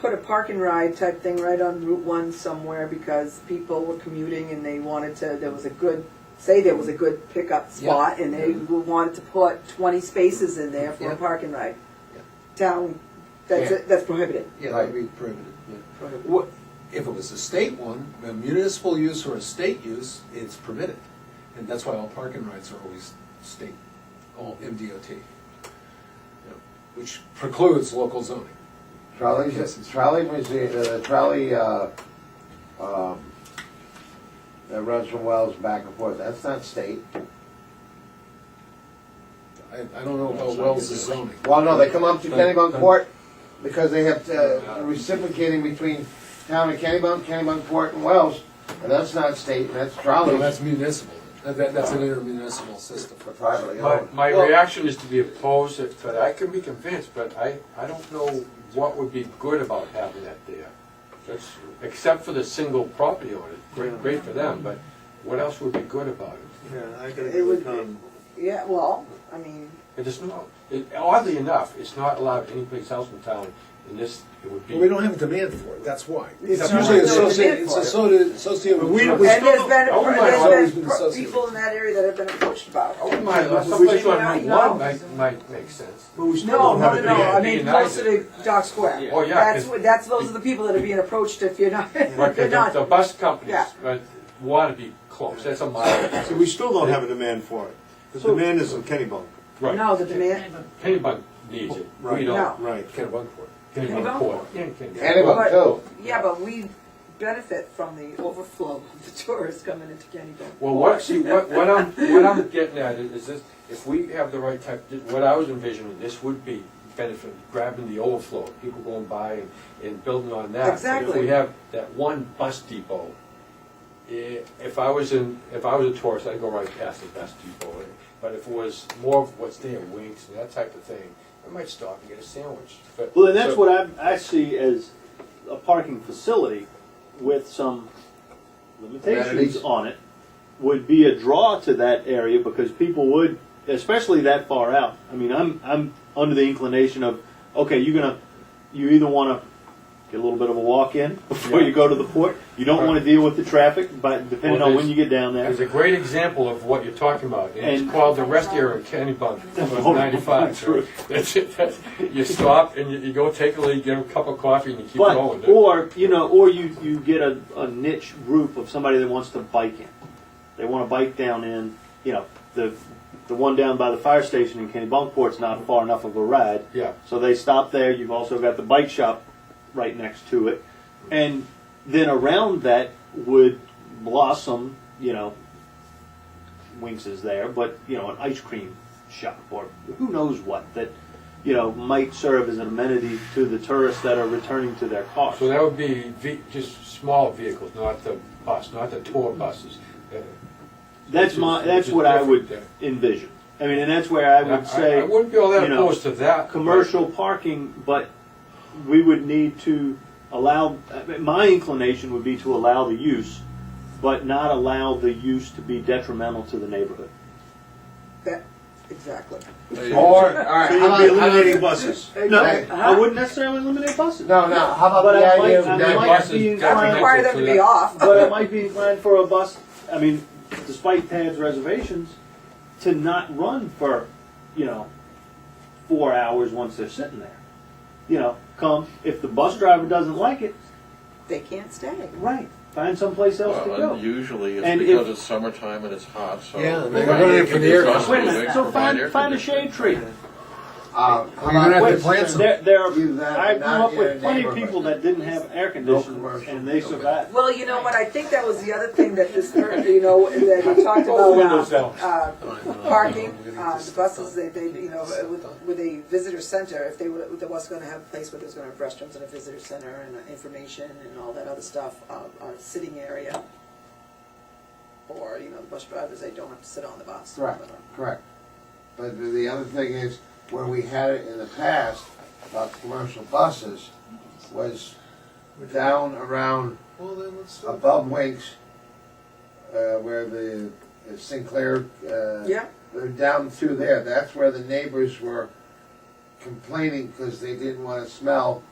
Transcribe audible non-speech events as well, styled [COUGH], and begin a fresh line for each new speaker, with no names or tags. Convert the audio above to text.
put a park and ride type thing right on Route One somewhere because people were commuting and they wanted to, there was a good, say there was a good pickup spot and they wanted to put twenty spaces in there for
Mm-hmm. Yeah.
a park and ride.
Yeah.
Town, that's,
Yeah.
it- that's prohibited.
Yeah, that'd be prohibited, yeah.
Prohibited.
What, if it was a state one, a municipal use or a state use, it's permitted. And that's why all parking rights are always state, all MDOT. Yeah, Which precludes local zoning.
Trolley, trolley museum, uh, the trolley, uh, um, that runs from Wells back and forth, that's not state.
I, I don't know about Oh, Wells' zoning.
Well, no, they come up to Kennybunk Court because they have, uh, reciprocating between town and Kennybunk, Kennybunk Court and Wells, and that's not state, and that's
No,
trolley,
that's municipal. That- that- that's an intermunicipal system.
for privately
My,
owned.
my
Well-
reaction is to be opposed, if- but I can be convinced, but I, I don't know what would be good about having that there. That's- Except for the single property owner, great, great for them, but what else would be good about it?
Yeah, I gotta
It
go
would
with Tom.
Yeah, well, I mean,
It is not, it- oddly enough, it's not allowed anyplace else in town, and this, it would be.
Well, we don't have a demand for it, that's why.
It's
It's
not-
usually
there's no
associated,
demand
it's
for it.
associated associated with.
We-
drugs.
we
and there's
still
been,
don't- I wouldn't mind
there's
always
been
been
pro-
associated.
people in that area that have been approached about.
I wouldn't mind, uh,
Yeah,
someplace
we-
on
yeah,
Route
no.
one might, might make sense.
But we still
No,
don't
no,
have
no,
a
no, I
demand.
mean,
United.
closer to Dock Square.
Oh, yeah,
That's,
'cause-
what- that's, those are the people that are being approached if you're not, [LAUGHS]
Right,
they're
'cause
not.
the the bus companies,
Yeah.
right, wanna be close, that's a mile,
So we still don't have a demand for it. The demand is in Kennybunk.
right.
No, the demand,
Anybody needs it, we
Right.
don't.
Right.
Kennebunkport.
Kennebunk Court. Yeah, Kennebunk.
Kennybunk too.
yeah, but we benefit from the overflow of the tourists coming into Kennybunk.
Well, what, see, what, what I'm, what I'm getting at is is this, if we have the right type, what I was envisioning, this would be benefit, grabbing the overflow, people going by and, and building on that. But If
Exactly.
we have that one bus depot, i- if I was in, if I was a tourist, I'd go right past the bus depot. But if it was more of what's there, wings and that type of thing, I might stop and get a sandwich. But-
Well, and that's
so-
what I, I see as a parking facility with some limitations
Amenities.
on it would be a draw to that area because people would, especially that far out. I mean, I'm I'm under the inclination of okay, you're gonna you either want to get a little bit of a walk in [LAUGHS] before
Yeah.
you go to the port. You don't want to deal with the traffic, but depending
Well,
on when
there's-
you get down there,
It's a great example of what you're talking about, and
And-
it's called the rest area in Kennybunk,
[LAUGHS] Oh,
on ninety-five. so
true.
that's it, that's- You stop and you, you go take a leak, get a cup of coffee, and you keep
But
going.
or you know, or you you get a, a niche group of somebody that wants to bike in. They want to bike down in. You know, the the one down by the fire station in Kennebunkport's not far enough of a ride,
Yeah,
so they stop there. You've also got the bike shop right next to it, and then around that would blossom. You know, Winks is there, but you know, an ice cream shop or who knows what that. You know, might serve as an amenity to the tourists that are returning to their cars.
so that would be ve- just small vehicles, not the bus, not the tour buses. Uh,
That's my, that's what I would envision. I mean, and that's where I would
I
say,
wouldn't be all that
you know,
opposed to that.
commercial parking, but we would need to allow, I mean, my inclination would be to allow the use, but not allow the use to be detrimental to the neighborhood.
That, exactly.
Or, all right,
So
how about,
you'd be
how about-
eliminating buses. No, I
Uh-huh.
wouldn't necessarily eliminate buses.
no, no, how about
But I
the
might,
idea
I
of
that
might
buses
be
detrimental
inclined,
Require them to be off.
but I might be inclined for a bus, I mean, despite Tad's reservations, to not run for, you know, four hours once they're sitting there. You know, come, if the bus driver doesn't like it,
They can't stay.
right, find someplace else to
Well,
go.
and usually it's
And
because
if-
it's summertime and it's hot, so.
Yeah,
If
they're
it's
running
on-
for
if
the
it's
air
on
conditioning.
Wait a
the
minute,
week,
so
provide
find,
air
find a
conditioning.
shade tree.
Uh, how
You're gonna have
about-
to
Wait,
plant some.
There, there are,
Do that,
I grew
not
up
in a
with plenty of
neighborhood.
people that didn't have air conditioning
commercial.
and they
Okay.
survived.
Well, you know what, I think that was the other thing that this, you know, that we
[LAUGHS]
talked
Roll windows
about,
down.
uh, uh, parking, uh, the buses, they, they, you know,
Stop.
with, with a visitor center, if they, were- there was gonna have a place where there was gonna have restrooms and a visitor center and uh, information and all that other stuff, uh, a sitting area. Or, you know, the bus drivers, they don't have to sit on the bus.
Correct, correct. But the- the other thing is, where we had it in the past about commercial buses was down around
Well, then let's.
above Winks, uh, where the Sinclair, uh,
Yeah,
they're down through there. That's where the neighbors were complaining because they didn't want to smell